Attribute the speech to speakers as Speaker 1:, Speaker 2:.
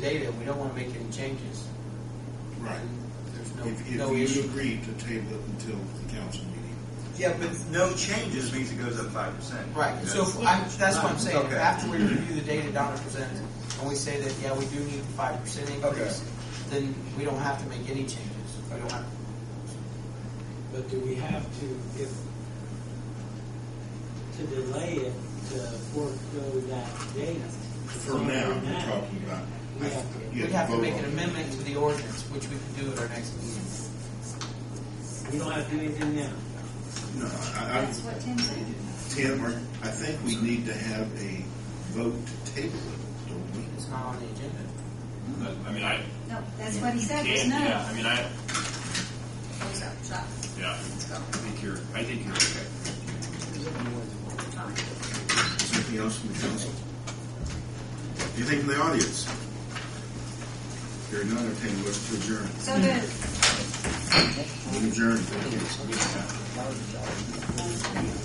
Speaker 1: data, we don't want to make any changes.
Speaker 2: Right. If-
Speaker 1: No-
Speaker 2: If,
Speaker 1: no
Speaker 2: if
Speaker 1: issue.
Speaker 2: you agree to table it until the council meeting.
Speaker 3: Yeah, but no changes means it goes up five percent.
Speaker 1: Right, so if I, that's what I'm saying,
Speaker 3: Okay.
Speaker 1: after we review the data Donna presented, and we say that, yeah, we do need a five percent increase, then we don't have to make any changes. We don't have,
Speaker 4: But do we have to, if, to delay it, to forego that data?
Speaker 2: For now, we're talking about.
Speaker 4: We
Speaker 2: I-
Speaker 4: have to-
Speaker 2: you
Speaker 1: we'd have to
Speaker 2: vote
Speaker 1: make
Speaker 2: on
Speaker 1: an
Speaker 2: it.
Speaker 1: amendment to the ordinance, which we can do at our next meeting.
Speaker 4: We don't have to do anything now.
Speaker 2: No, I, I,
Speaker 5: That's what Tim said.
Speaker 2: Tim, or- I think we need to have a vote to table it, don't we?
Speaker 1: It's not on the agenda.
Speaker 6: But, I mean, I.
Speaker 5: No, that's what he said,
Speaker 6: Yeah,
Speaker 5: was no.
Speaker 6: Yeah, I mean, I,
Speaker 5: Close up shop.
Speaker 6: yeah,
Speaker 5: Let's go.
Speaker 6: I think you're, I think you're okay.
Speaker 5: Fine.
Speaker 2: Something else from the council? Anything from the audience? Here, none, entertain a motion to adjourn.
Speaker 5: So moved.
Speaker 2: Adjourn, thank you.